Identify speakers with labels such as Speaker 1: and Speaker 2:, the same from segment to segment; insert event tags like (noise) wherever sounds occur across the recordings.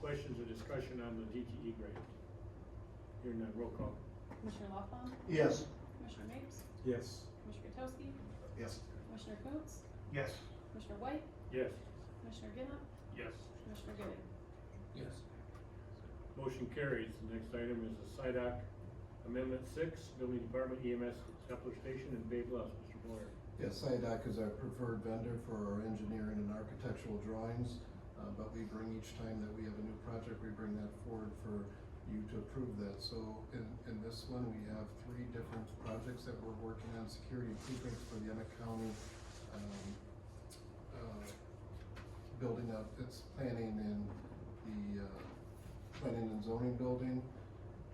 Speaker 1: questions or discussion on the DTE grant? Hearing none, roll call.
Speaker 2: Commissioner Loffbaum,
Speaker 3: Yes.
Speaker 2: Commissioner Mapes,
Speaker 1: Yes.
Speaker 2: Commissioner Gutowski,
Speaker 3: Yes.
Speaker 2: Commissioner Coates,
Speaker 3: Yes.
Speaker 2: Commissioner White,
Speaker 1: Yes.
Speaker 2: Commissioner Ginnup,
Speaker 3: Yes.
Speaker 2: Commissioner Gooding.
Speaker 4: Yes.
Speaker 1: Motion carries. The next item is the SIDOC Amendment Six, Building Department EMS Kepler Station in Bay Bluff. Mr. Boyer.
Speaker 5: Yes, IDOC is our preferred vendor for our engineering and architectural drawings, uh, but we bring each time that we have a new project, we bring that forward for you to approve that. So in, in this one, we have three different projects that we're working on, security improvements for the Emmett County, um, uh, building up, it's planning in the, uh, planning and zoning building,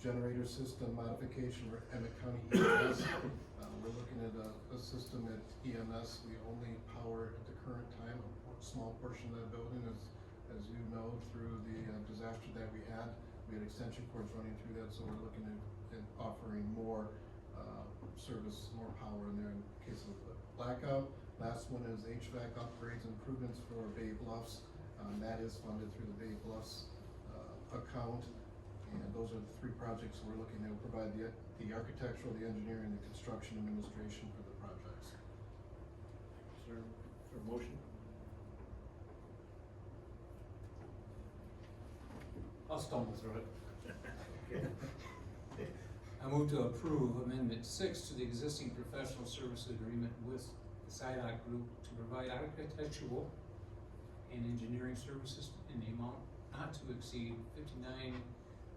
Speaker 5: generator system modification for Emmett County (coughs) EMS. Uh, we're looking at a, a system at EMS, we only power at the current time, a por- small portion of that building as, as you know, through the uh, disaster that we had. We had extension cords running through that, so we're looking at, at offering more, uh, service, more power in there in case of blackout. Last one is HVAC upgrades improvements for Bay Bluffs, um, that is funded through the Bay Bluffs, uh, account. And those are the three projects we're looking at, provide the, the architectural, the engineering, the construction administration for the projects.
Speaker 1: Is there, is there a motion?
Speaker 4: I'll stumble through it.
Speaker 1: Okay.
Speaker 4: I move to approve amendment six to the existing professional service agreement with the SIDOC group to provide architectural and engineering services in the amount not to exceed fifty-nine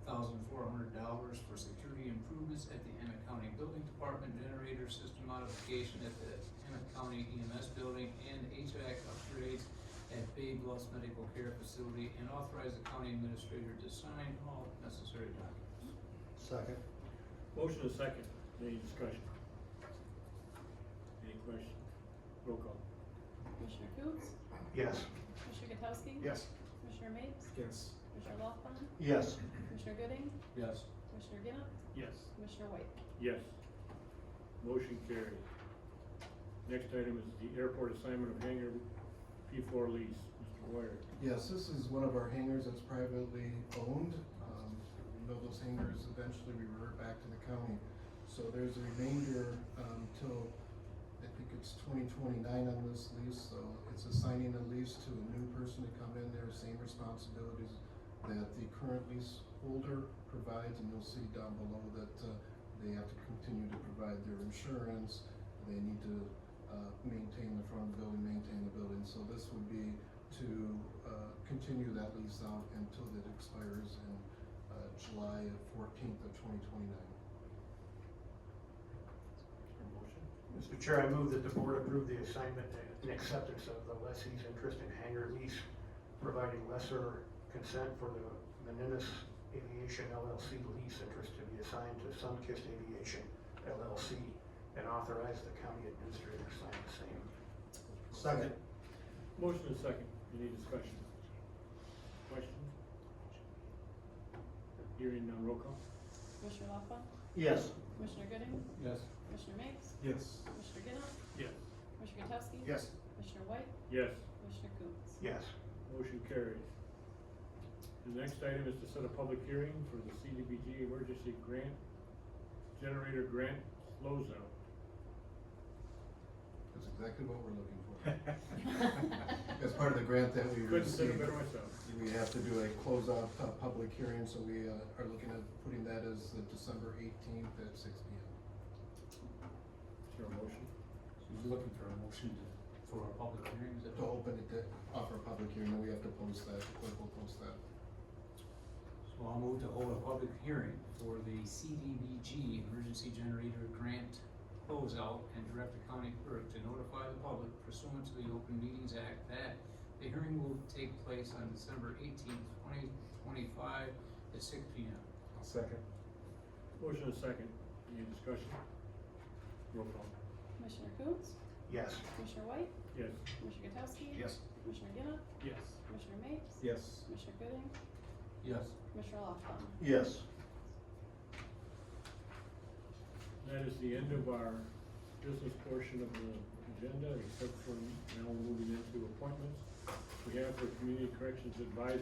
Speaker 4: thousand four hundred dollars for security improvements at the Emmett County Building Department, generator system modification at the Emmett County EMS building, and HVAC upgrades at Bay Bluffs Medical Care Facility, and authorize the county administrator to sign all necessary documents.
Speaker 3: Second.
Speaker 1: Motion is second. Any discussion? Any questions? Roll call.
Speaker 2: Commissioner Coates,
Speaker 3: Yes.
Speaker 2: Commissioner Gutowski.
Speaker 3: Yes.
Speaker 2: Commissioner Mapes,
Speaker 4: Yes.
Speaker 2: Commissioner Loffbaum,
Speaker 3: Yes.
Speaker 2: Commissioner Gooding,
Speaker 4: Yes.
Speaker 2: Commissioner Ginnup,
Speaker 1: Yes.
Speaker 2: Commissioner White.
Speaker 1: Yes. Motion carried. Next item is the airport assignment of hangar P four lease. Mr. Boyer.
Speaker 5: Yes, this is one of our hangars that's privately owned. Um, You know, those hangars eventually revert back to the county. So there's a remainder um, till, I think it's twenty twenty-nine on this lease, so it's assigning a lease to a new person to come in there, same responsibilities that the current lease holder provides, and you'll see down below that uh, they have to continue to provide their insurance, they need to uh, maintain the front of the building, maintain the building, so this would be to uh, continue that lease out until it expires in uh, July fourteenth of twenty twenty-nine.
Speaker 1: Is there a motion?
Speaker 3: Mr. Chair, I move that the board approve the assignment and acceptance of the lessee's interest in hangar lease, providing lesser consent for the Meninas Aviation LLC lease interest to be assigned to Sunkist Aviation LLC, and authorize the county administrator to sign the same. Second.
Speaker 1: Motion is second. Any discussion? Questions? Hearing none, roll call.
Speaker 2: Commissioner Loffbaum,
Speaker 3: Yes.
Speaker 2: Commissioner Gooding,
Speaker 4: Yes.
Speaker 2: Commissioner Mapes,
Speaker 4: Yes.
Speaker 2: Commissioner Ginnup,
Speaker 1: Yes.
Speaker 2: Commissioner Gutowski.
Speaker 3: Yes.
Speaker 2: Commissioner White,
Speaker 1: Yes,
Speaker 2: Commissioner Coates.
Speaker 3: Yes.
Speaker 1: motion carries. The next item is to set a public hearing for the CDBG Emergency Grant Generator Grant Closeout.
Speaker 5: That's exactly what we're looking for. As part of the grant that we
Speaker 1: Couldn't say it
Speaker 5: received,
Speaker 1: better myself.
Speaker 5: we have to do a closeout uh, public hearing, so we uh, are looking at putting that as the December eighteenth at six P M.
Speaker 1: Is there a motion?
Speaker 4: So you're looking for a motion to, for a public hearing, is that?
Speaker 5: To open it, to offer a public hearing, then we have to post that, the clerk will post that.
Speaker 4: So I'll move to hold a public hearing for the CDBG Emergency Generator Grant closeout and direct the county clerk to notify the public pursuant to the Open Meetings Act that the hearing will take place on December eighteenth, twenty twenty-five at six P M.
Speaker 3: Second.
Speaker 1: Motion is second. Any discussion? Roll call.
Speaker 2: Commissioner Coates,
Speaker 3: Yes.
Speaker 2: Commissioner White,
Speaker 1: Yes.
Speaker 2: Commissioner Gutowski.
Speaker 3: Yes.
Speaker 2: Commissioner Ginnup,
Speaker 1: Yes.
Speaker 2: Commissioner Mapes,
Speaker 3: Yes.
Speaker 2: Commissioner Gooding,
Speaker 4: Yes.
Speaker 2: Commissioner Loffbaum.
Speaker 3: Yes.
Speaker 1: That is the end of our business portion of the agenda, except for now we're moving into appointments. We have for Community Corrections Advisory